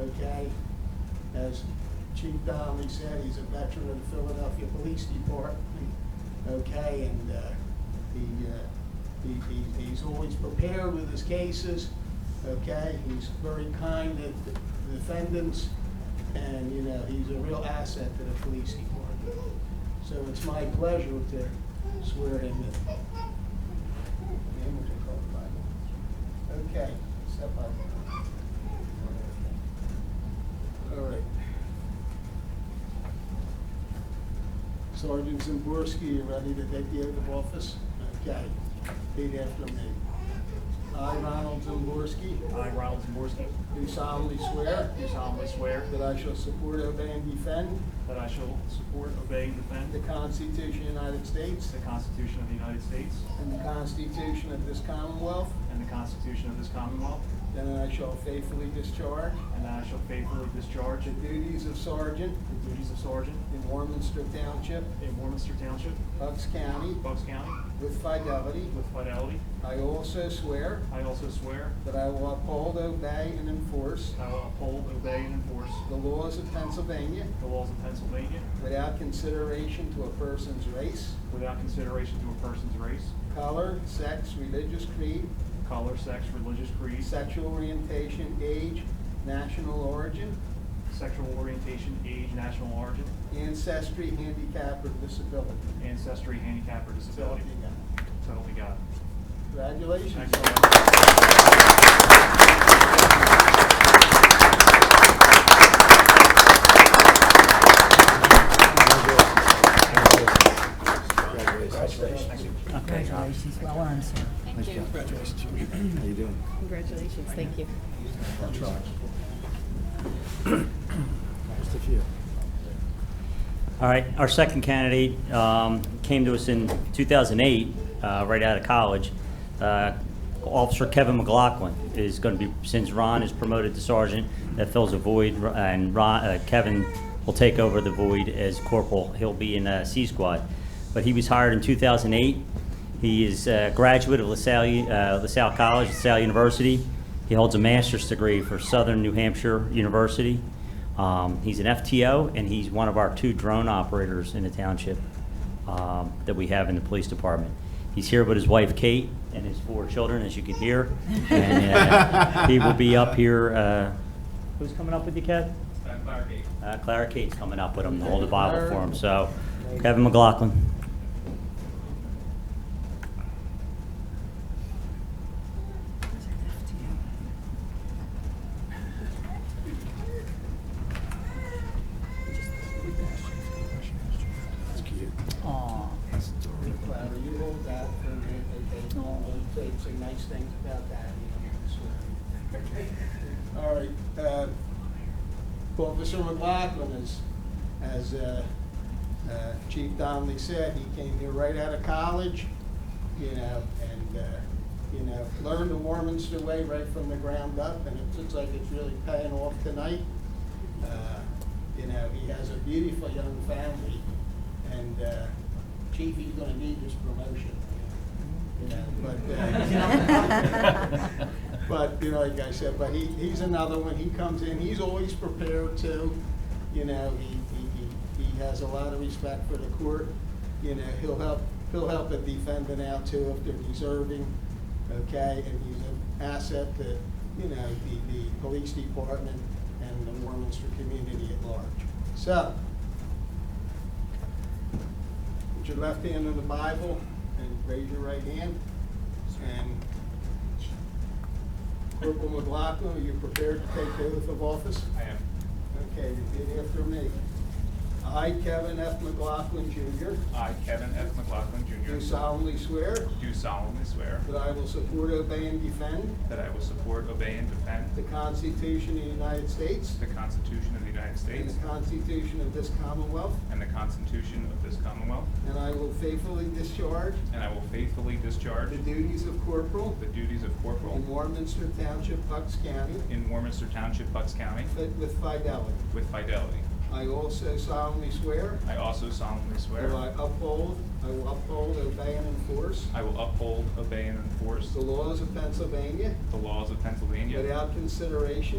again. As Chief Donnelly said, he's a veteran of the Philadelphia Police Department, okay, and uh, he, uh, he- he- he's always prepared with his cases, okay? He's very kind to the defendants, and, you know, he's a real asset to the police department. So it's my pleasure to swear him in. Name is called Bible. Okay, step up. All right. Sergeant Zimborski, you ready to take the oath of office? Okay, repeat after me. I, Ronald Zimborski, I, Ronald Zaborski, do solemnly swear do solemnly swear that I shall support, obey, and defend that I shall support, obey, and defend the Constitution of the United States the Constitution of the United States and the Constitution of this Commonwealth, and the Constitution of this Commonwealth, and that I shall faithfully discharge and that I shall faithfully discharge the duties of sergeant the duties of sergeant in Warminster Township, in Warminster Township, Bucks County, Bucks County, with fidelity. with fidelity. I also swear I also swear that I will uphold, obey, and enforce I will uphold, obey, and enforce the laws of Pennsylvania the laws of Pennsylvania without consideration to a person's race, without consideration to a person's race, color, sex, religious creed, color, sex, religious creed, sexual orientation, age, national origin, sexual orientation, age, national origin, ancestry, handicap, or disability. ancestry, handicap, or So help disability. me God. So help me God. Congratulations. Thanks so much. Thank you. Congratulations, well earned, sir. Thank you. How you doing? Congratulations, thank you. Just a few. All right, our second candidate um, came to us in 2008, uh, right out of college. Uh, Officer Kevin McLaughlin is going to be, since Ron is promoted to sergeant, that fills a void, and Ron, uh, Kevin will take over the void as corporal. He'll be in uh, C Squad. But he was hired in 2008. He is a graduate of LaSalle, uh, LaSalle College, LaSalle University. He holds a master's degree for Southern New Hampshire University. Um, he's an FTO, and he's one of our two drone operators in the township um, that we have in the police department. He's here with his wife Kate and his four children, as you can hear. And uh, he will be up here. Uh, who's coming up with you, Kev? Uh, Clara Kate's coming up with him to hold the Bible for him. So, Kevin McLaughlin. That's cute. Aw, Clara, you hold that for a minute, okay? All the tapes say nice things about that, you know, so. All right, uh, Officer McLaughlin is, as uh, uh, Chief Donnelly said, he came here right out of college, you know, and, uh, you know, learned the Warminster way right from the ground up, and it looks like it's really paying off tonight. Uh, You know, he has a beautiful young family, and uh, Chief, he's gonna need his promotion. You know, but, uh, but, you know, like I said, but he, he's another one, he comes in, he's always prepared to, you know, he, he, he he has a lot of respect for the court. You know, he'll help, he'll help a defendant out too if they're deserving, okay? And he's an asset to, you know, the, the police department and the Warminster community at large. So, Put your left hand on the Bible and raise your right hand. And Corporal McLaughlin, are you prepared to take the oath of office? I am. Okay, repeat after me. I, Kevin F. McLaughlin Jr., I, Kevin F. McLaughlin Jr. do solemnly swear do solemnly swear that I will support, obey, and defend that I will support, obey, and defend the Constitution of the United States the Constitution of the United and States the Constitution of this Commonwealth, and the Constitution of this Commonwealth, and I will faithfully discharge and I will faithfully discharge the duties of corporal the duties of in corporal Warminster Township, Bucks County, in Warminster Township, Bucks County, Fit with fidelity. with fidelity. I also solemnly swear I also solemnly that I swear uphold, I will uphold, obey, and enforce I will uphold, obey, and enforce the laws of Pennsylvania the laws of Pennsylvania without consideration